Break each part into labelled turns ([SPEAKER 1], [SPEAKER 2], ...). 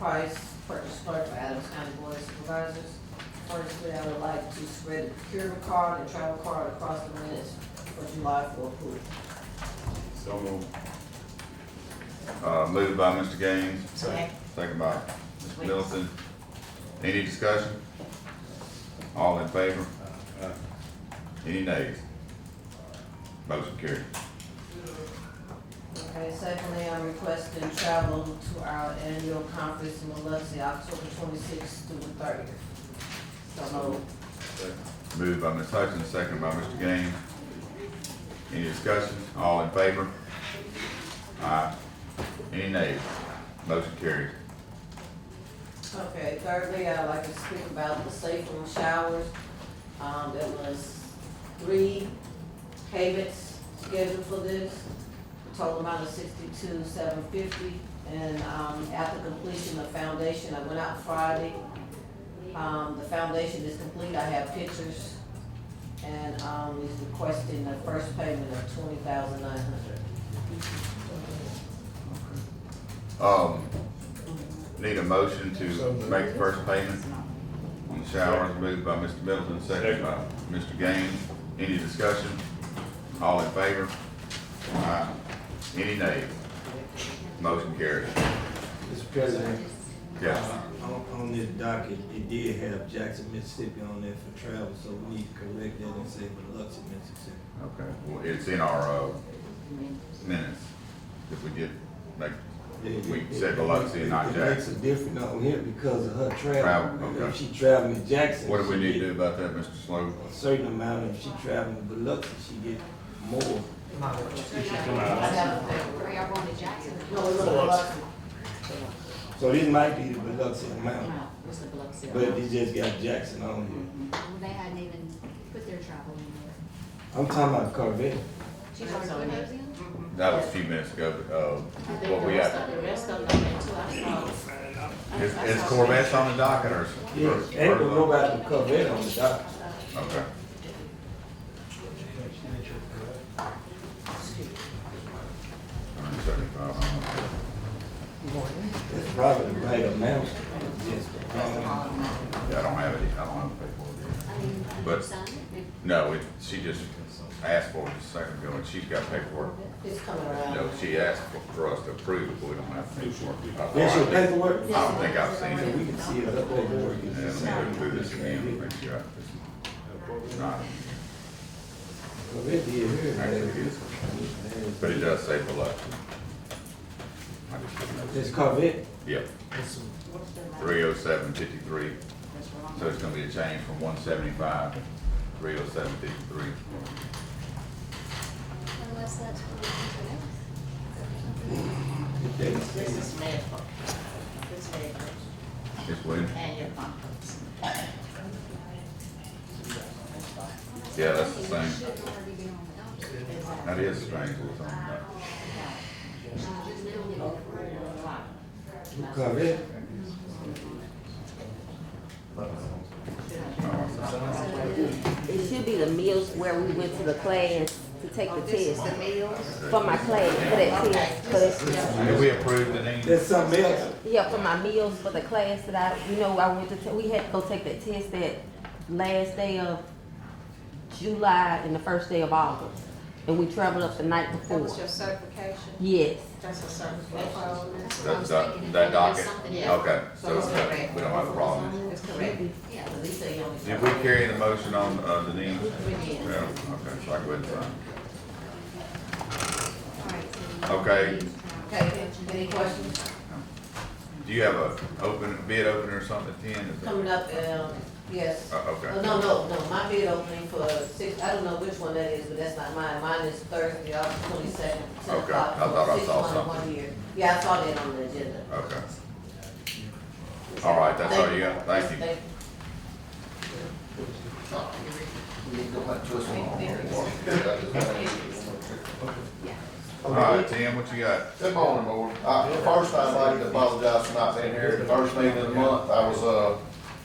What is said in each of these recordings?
[SPEAKER 1] Price, purchase clerk for Adams County Board of Supervisors. Firstly, I would like to spread the procurement card and travel card across the minutes for July for approval.
[SPEAKER 2] So moved.
[SPEAKER 3] Uh, moved by Mr. Gaines,
[SPEAKER 1] Second.
[SPEAKER 3] second by Mr. Middleton. Any discussion? All in favor? Any nays? Motion carried.
[SPEAKER 1] Okay, secondly, I'm requesting travel to our annual conference in Biloxi, October twenty-sixth through the thirtieth. So moved.
[SPEAKER 3] Moved by Ms. Hutchins, second by Mr. Gaines. Any discussion? All in favor? Aye. Any nays? Motion carried.
[SPEAKER 1] Okay, thirdly, I'd like to speak about the safe room showers. Um, there was three payments scheduled for this, a total amount of sixty-two, seven fifty. And, um, after completion of foundation, I went out Friday. Um, the foundation is complete, I have pictures. And, um, is requesting the first payment of twenty thousand nine hundred.
[SPEAKER 3] Um, need a motion to make the first payment on the showers, moved by Mr. Middleton, second by Mr. Gaines. Any discussion? All in favor? Aye. Any nays? Motion carried.
[SPEAKER 4] Mr. President,
[SPEAKER 3] Yeah,
[SPEAKER 4] uh, on, on this docket, it did have Jackson, Mississippi on there for travel, so we need to correct that and say Biloxi, Mississippi.
[SPEAKER 3] okay. Well, it's in our, uh, minutes. If we did make
[SPEAKER 4] Yeah,
[SPEAKER 3] We
[SPEAKER 4] it-
[SPEAKER 3] said Biloxi,
[SPEAKER 4] it-
[SPEAKER 3] not
[SPEAKER 4] It makes a
[SPEAKER 3] Jackson.
[SPEAKER 4] difference on here because of her
[SPEAKER 3] Travel,
[SPEAKER 4] travel.
[SPEAKER 3] okay.
[SPEAKER 4] If she traveling to Jackson.
[SPEAKER 3] What do we
[SPEAKER 4] she
[SPEAKER 3] need to
[SPEAKER 4] get
[SPEAKER 3] do about that, Mr. Slover?
[SPEAKER 4] A certain amount, if she traveling to Biloxi, she get more.
[SPEAKER 5] I don't know. Or y'all going to Jackson?
[SPEAKER 1] No, we're looking at Biloxi.
[SPEAKER 4] So this might be the Biloxi amount,
[SPEAKER 5] It's the Biloxi.
[SPEAKER 4] but it just got Jackson on here.
[SPEAKER 5] Well, They hadn't even put their travel in there.
[SPEAKER 4] I'm talking about Corvette.
[SPEAKER 5] She's already put those in?
[SPEAKER 3] That was a few minutes ago, but, uh, what we got.
[SPEAKER 5] The rest of them, too, I
[SPEAKER 3] Is, is Corvettes on the docket or?
[SPEAKER 4] Yeah, ain't gonna nobody with Corvette on the docket.
[SPEAKER 3] Okay. $175.
[SPEAKER 4] That's probably the right amount. Just, um,
[SPEAKER 3] Yeah, I don't have it, I don't have the paperwork.
[SPEAKER 5] saw. I mean, did you
[SPEAKER 3] But-
[SPEAKER 5] sign it?
[SPEAKER 3] No, it, she just asked for it just a second ago, and she's got paperwork.
[SPEAKER 1] It's coming around.
[SPEAKER 3] No, she asked for- for us to approve it, but we don't have paperwork.
[SPEAKER 4] That's your
[SPEAKER 3] I
[SPEAKER 4] paperwork?
[SPEAKER 3] don't think I've seen
[SPEAKER 4] So
[SPEAKER 3] it.
[SPEAKER 4] we can see it up over.
[SPEAKER 3] Yeah, let me go through this again, make sure I, it's not, actually, it is. But it does say below. I just didn't know.
[SPEAKER 4] This Corvette,
[SPEAKER 3] Yep, three oh seven fifty-three, so it's gonna be a change from one seventy-five to three oh seven fifty-three.
[SPEAKER 5] Unless that's for the
[SPEAKER 6] This is medical. This is medical,
[SPEAKER 3] Ms. Williams?
[SPEAKER 6] and your conference.
[SPEAKER 3] Yeah, that's the same,
[SPEAKER 5] Shouldn't already be on the docket. Uh,
[SPEAKER 3] that is strange, what's on that.
[SPEAKER 4] Corvette,
[SPEAKER 7] It should be the meals where we went to the class to take the
[SPEAKER 6] This is
[SPEAKER 7] test
[SPEAKER 6] the meals.
[SPEAKER 7] for my class, for that test, for that,
[SPEAKER 3] Did we approve the name?
[SPEAKER 4] that's something else.
[SPEAKER 7] yeah, for my meals for the class that I, you know, I went to, ta- we had to go take that test that last day of July and the first day of August. And we traveled up the night
[SPEAKER 6] That was
[SPEAKER 7] before.
[SPEAKER 6] your certification?
[SPEAKER 7] Yes,
[SPEAKER 6] That's a certification.
[SPEAKER 5] That's what I
[SPEAKER 3] That,
[SPEAKER 5] was
[SPEAKER 3] that,
[SPEAKER 5] thinking.
[SPEAKER 3] that docket,
[SPEAKER 5] Something else.
[SPEAKER 3] okay, so it's okay. we don't have a problem.
[SPEAKER 6] That's correct.
[SPEAKER 5] Yeah.
[SPEAKER 1] But he said he only-
[SPEAKER 3] Did we carry the motion on, uh, the name?
[SPEAKER 5] We did.
[SPEAKER 3] Yeah, okay, so I go ahead and sign.
[SPEAKER 5] All right, so-
[SPEAKER 3] Okay,
[SPEAKER 1] Okay, any questions?
[SPEAKER 3] do you have a open, bid opener or something at ten? Is it-
[SPEAKER 1] Coming up, um, yes.
[SPEAKER 3] Uh,
[SPEAKER 1] Oh,
[SPEAKER 3] okay,
[SPEAKER 1] No, no, no, my bid opening for six, I don't know which one that is, but that's not mine. Mine is Thursday, August twenty-second, ten
[SPEAKER 3] Okay,
[SPEAKER 1] o'clock.
[SPEAKER 3] I thought I
[SPEAKER 1] Six
[SPEAKER 3] saw
[SPEAKER 1] one in
[SPEAKER 3] something.
[SPEAKER 1] one year. Yeah, I saw that on the agenda.
[SPEAKER 3] okay. All right, that's all you got, thank you. All right, Tim, what you got?
[SPEAKER 8] Good morning, Board. Uh, first, I'd like to apologize for not being here. The first meeting of the month, I was, uh,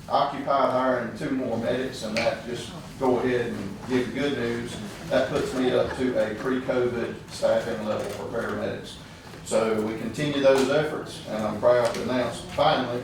[SPEAKER 8] occupied hiring two more medics, and that just go ahead and give good news. That puts me up to a pre-COVID staffing level for paramedics. So we continue those efforts, and I'm proud to announce finally